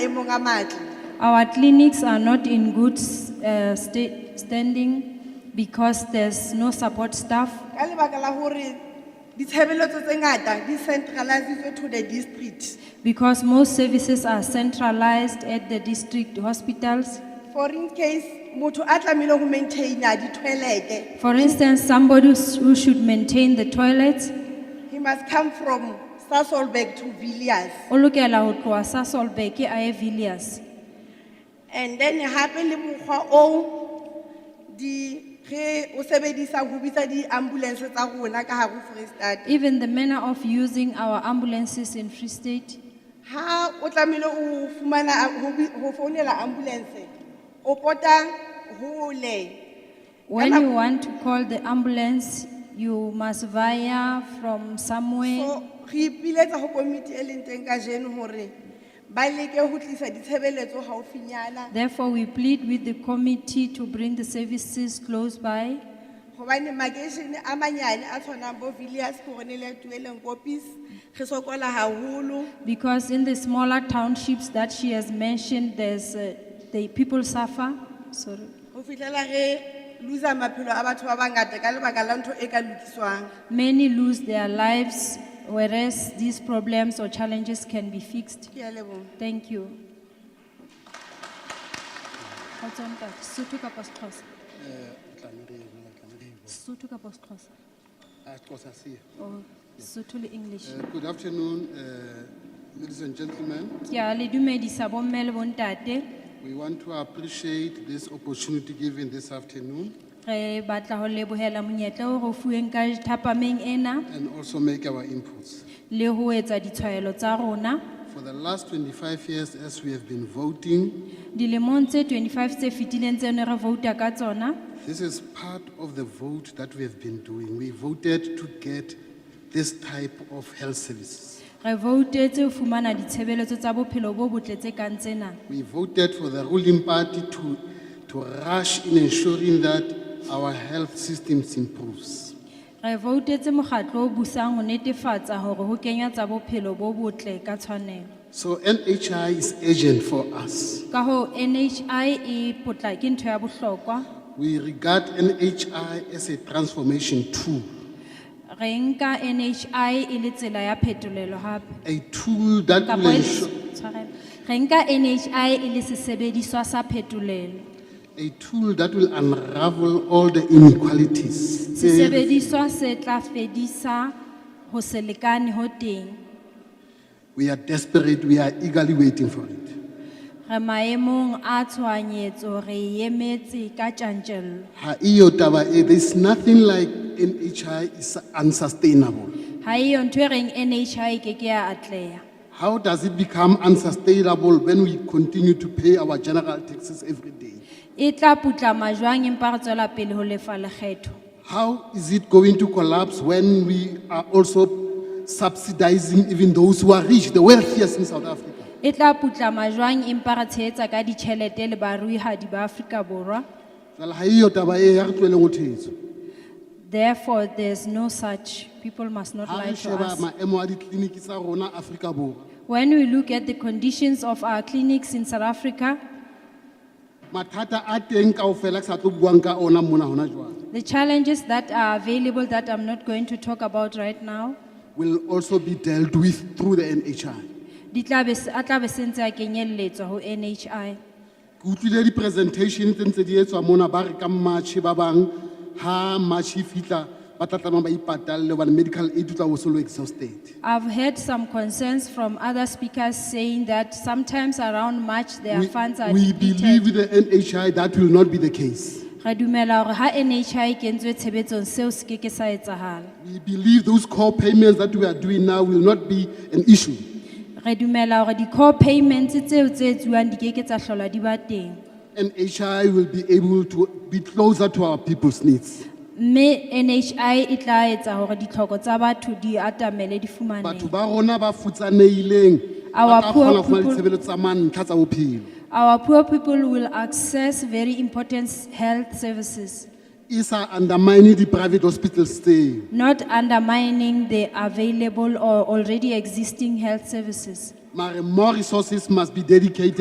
maemong a matle Our clinics are not in good uh, sta- standing because there's no support staff. ka lebaka la gore ditshebeletso tse ngata di centralisitswe to the district Because most services are centralized at the district hospitals. for in case motho a tlamehile go maintaina di-toilete For instance, somebody who's- who should maintain the toilets, he must come from sasolbak to villiers o lokela ho tloha sa Solbeke a ye Villiers. and then gape le mokgwa oo di ge o sebedisa go bitsa di-ambulance tsa rona ka gare freestate Even the manner of using our ambulances in Free State, ha o tlamehile o fumana ho bi- ho founela ambulance o pota hole when you want to call the ambulance, you must via from somewhere. so re ipiletsa ho komiti e leng teng kajeno hore ba leke ho tlisa ditshebeletso haufinyana Therefore, we plead with the committee to bring the services close by hobane makeishene a manyane a tshwanang bo villiers gore ne le tueleng kopis re sokola haholo because in the smaller townships that she has mentioned, there's, uh, the people suffer. Sorry. ho fihlela re loser maphelo a batho ba bangata ka lebaka la ntho e ka lokiswang Many lose their lives, whereas these problems or challenges can be fixed. ke a leboha Thank you. Kgotso ntate, Sotho kapa Sexhosa? Sotho kapa Sexhosa? Or Sotho le English? Uh, Good afternoon, uh, ladies and gentlemen. Ke a le dumedisa bomme le bontate. We want to appreciate this opportunity given this afternoon Re batla ho lebohela monyetla o re o fuweng ka thapameng ena and also make our inputs. le ho etsa ditshwaelo tsa rona. For the last 25 years, as we have been voting, Dilemong tse 25 tse fetileng tse ne re vouta ka tsona, this is part of the vote that we have been doing. We voted to get this type of health services. re voutetse ho fumana ditshebeletso tsa bophelo bo botle tse kang tsena. We voted for the ruling party to, to rush in ensuring that our health systems improves. Re voutetse mokgatlo o busang ho netefatsa hore ho kenywa tsa bophelo bo botle ka tshwanelo. So NHI is urgent for us. Ka ho NHI e potla ke ntho ya bohlokwa. We regard NHI as a transformation tool, Re nka NHI e le tsela ya phetolelo hape. a tool that will Kapa e- ensure, tshwarelo. Re nka NHI e le sesebediswa sa phetolelo. a tool that will unravel all the inequalities. Eh, Sesebediswa se tla fedisa ho se lekane ho teng. We are desperate, we are eagerly waiting for it. Re maemong a tshohanyetso re e emetse ka tjantjello. Ha iyo taba e, There's nothing like NHI is unsustainable. Ha eyo ntho e reng NHI e ke ke ya atleha. How does it become unsustainable when we continue to pay our general taxes every day? E tla putlama jwang empa re tswela pele ho lefa lekgetho. How is it going to collapse when we are also subsidizing even those who are rich, the wealthiest in South Africa? E tla putlama jwang empa re tshehetsa ka ditjhelete le baruihadi ba Afrika Borwa. Jwale ha eyo taba e ya re tlohelleng ho thetso. Therefore, there's no such, people must not Ha lie re to sheba us. maemo a ditleliniki tsa rona Afrika Borwa, When we look at the conditions of our clinics in South Africa, mathata a teng kaofela ke sa tlo buang ka ona mona hona jwale, the challenges that are available that I'm not going to talk about right now, will also be dealt with through the NHI. di tla be, a tla be se ntse a kenyelletswa ho NHI. Ke utlwile di-presentation tse ntse di etswa mona ba re ka March ba bang, ha March e fihla, ba tla tlameha ba ipatalle hobane medical aid o tla be o so le exhausted. I've heard some concerns from other speakers saying that sometimes around March their We- funds are We depleted. believe the NHI, that will not be the case. Re dumela hore ha NHI e kentswe tshebetsong seo se keke sa etsahala. We believe those core payments that we are doing now will not be an issue. Re dumela hore di-core payments tseo tse etsuwang di keke tsa hlola di ba teng. NHI will be able to be closer to our people's needs. mme NHI e tla etsa hore ditlhoko tsa batho di atamele di Batho fumanehe. ba rona ba futsanehileng, Our ba tla poor kgona ho fumana people- ditshebeletso tsa mantlha tsa bophelo. Our poor people will access very important health services, E sa undermine di-private hospitals tseo. not undermining the available or already existing health services. mare more resources must be dedicated